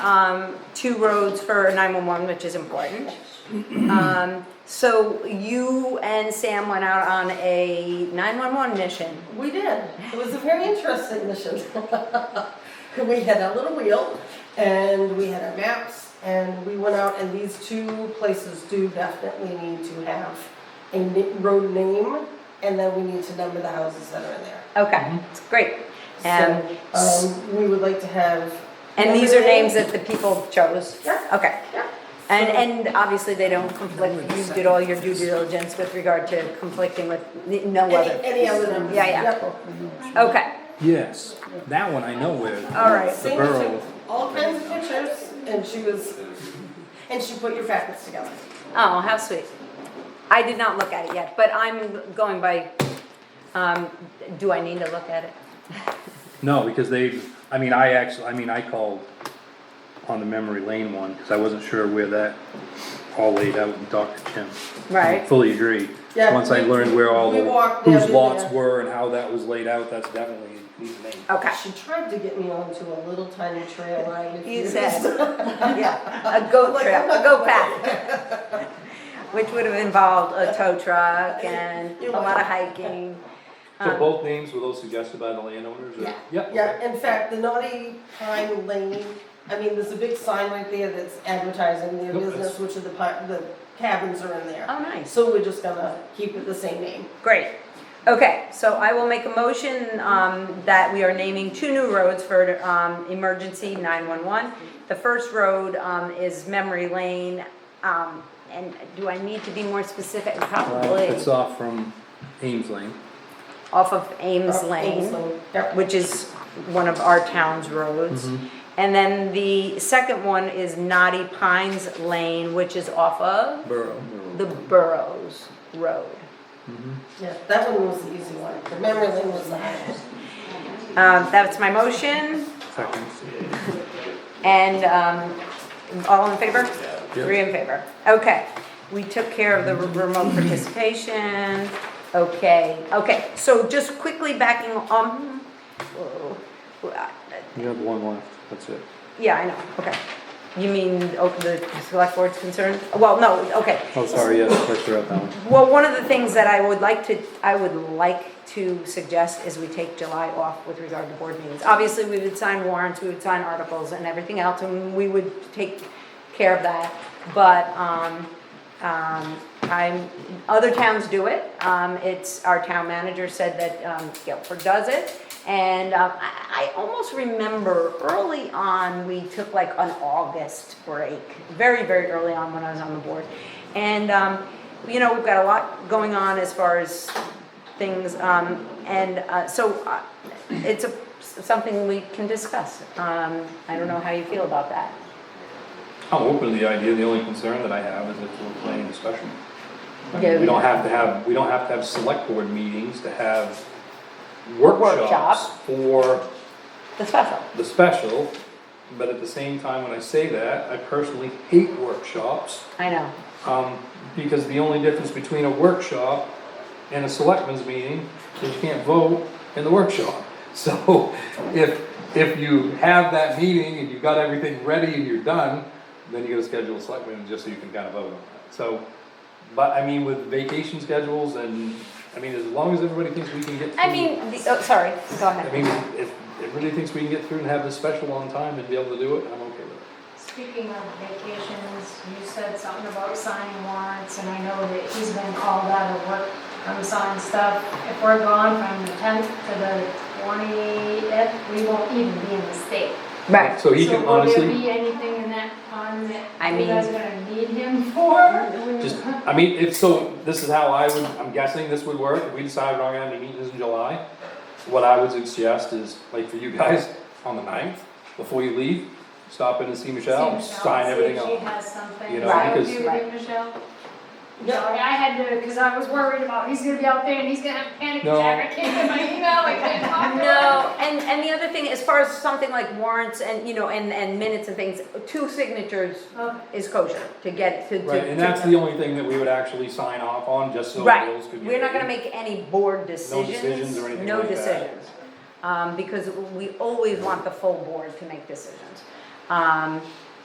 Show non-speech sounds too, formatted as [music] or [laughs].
um, two roads for 911, which is important. Um, So you and Sam went out on a 911 mission. We did. It was a very interesting mission. [laughs] we had our little wheel and we had our maps and we went out and these two places do definitely need to have a ni- road name and then we need to number the houses that are in there. Okay, it's great. And, So, um, we would like to have. and these are names everything- that the people chose? Yeah. Okay. Yeah. And, and obviously they don't conflict, you did all your due diligence with regard to conflicting with n- no Any, other. any other numbers. Yeah, yeah. Yep. Okay, Yes, that one I know where. all right. The Same borough. picture, all kinds of pictures and she was, and she put your packets together. Oh, how sweet. I did not look at it yet, but I'm going by, um, do I need to look at it? No, because they, I mean, I actually, I mean, I called on the memory lane one, because I wasn't sure where that all laid out in Dr. Jim. Right. Fully agree. Yeah, Once I we- learned where all we the, walked uh, whose down lots there. were and how that was laid out, that's definitely these names. Okay. She tried to get me onto a little tiny trail ride. a few You years said, yeah, a goat trail, a [laughs] goat path. [laughs] Which would have involved a tow truck and a lot of hiking. Um, So both names, were those suggested by the landowners? [laughs] Uh-huh. Yeah. Yep. Yeah, in fact, the Naughty Pine Lane, I mean, there's a big sign right there that's advertising their Nope, business, that's- which are the pi- the cabins are in there. Oh, nice. So we're just gonna keep it the same name. Great. Okay, so I will make a motion um, that we are naming two new roads for um, emergency 911. The first road um, is Memory Lane, um, and do I need to be more specific? Probably Uh, It's off from Ames Lane. off of Ames Uh, Lane. Yep. which is one of our town's roads. And then the second one is Naughty Pines Lane, which is off of Borough. the Burrows Road. Yeah, that one was the easy one. The memory lane was the hardest. Um, that's my motion, Second. and, um, all in favor? Three in favor, okay. We took care of the re- remote participation, okay, okay, so just quickly backing, um, whoa, You have one left, that's it. Yeah, I know, okay. You mean, oh, the select board's concerned? Well, no, okay. Oh, sorry, yes, first throw out that one. Well, one of the things that I would like to, I would like to suggest is we take July off with regard to board meetings. Obviously, we would sign warrants, we would sign articles and everything else, and we would take care of that. But, um, um, I'm, other towns do it. Um, it's, our town manager said that, um, Guilford does it. And, um, I, I almost remember early on, we took like an August break, very, very early on when I was on the board. And, um, you know, we've got a lot going on as far as things, um, and, uh, so, uh, it's a, something we can discuss. Um, I don't know how you feel about that. I'm open to the idea, the only concern that I have is if we're planning a special. I mean, Yeah. We don't have to have, we don't have to have select board meetings to have Workshop. workshops for The special. the special. But at the same time, when I say that, I personally hate workshops. I know. Um, because the only difference between a workshop and a selectmen's meeting is you can't vote in the workshop. [laughs] So if, if you have that meeting and you've got everything ready and you're done, then you gotta schedule a selectmen just so you can kind of vote on that. So, but I mean, with vacation schedules and, I mean, as long as everybody thinks we can get through. I mean, the, oh, sorry, go I ahead. mean, if, if really thinks we can get through and have this special on time and be able to do it, I'm okay with it. Speaking of vacations, you said something about signing warrants, and I know that he's been called out of work on signing stuff. If we're gone from the tenth to the twentieth, we won't even be in the state. Right, So he can So will honestly, there be anything in that pond that I you guys are mean- gonna need him for? Just, I mean, if, so, this is how I would, I'm guessing this would work, if we decided we're not gonna have any meetings in July, what I would suggest is, like, for you guys, on the ninth, before you leave, stop in and see Michelle, See sign everything See if she up. has something. You know, Right. because- Do you think, Michelle? Sorry, Yeah, I had to, because I was worried about, he's gonna be out there and he's gonna have a panic No. attack. I can't get my email, I can't talk to him. no, and, and the other thing, as far as something like warrants and, you know, and, and minutes and things, two signatures Okay. is kosher to get, to. to- Right, and to- that's the only thing that we would actually sign off on, just so Right, bills could be. we're not gonna paid. make any board decisions. decisions or anything No like that. decisions, um, because we always want the full board to make decisions. Um,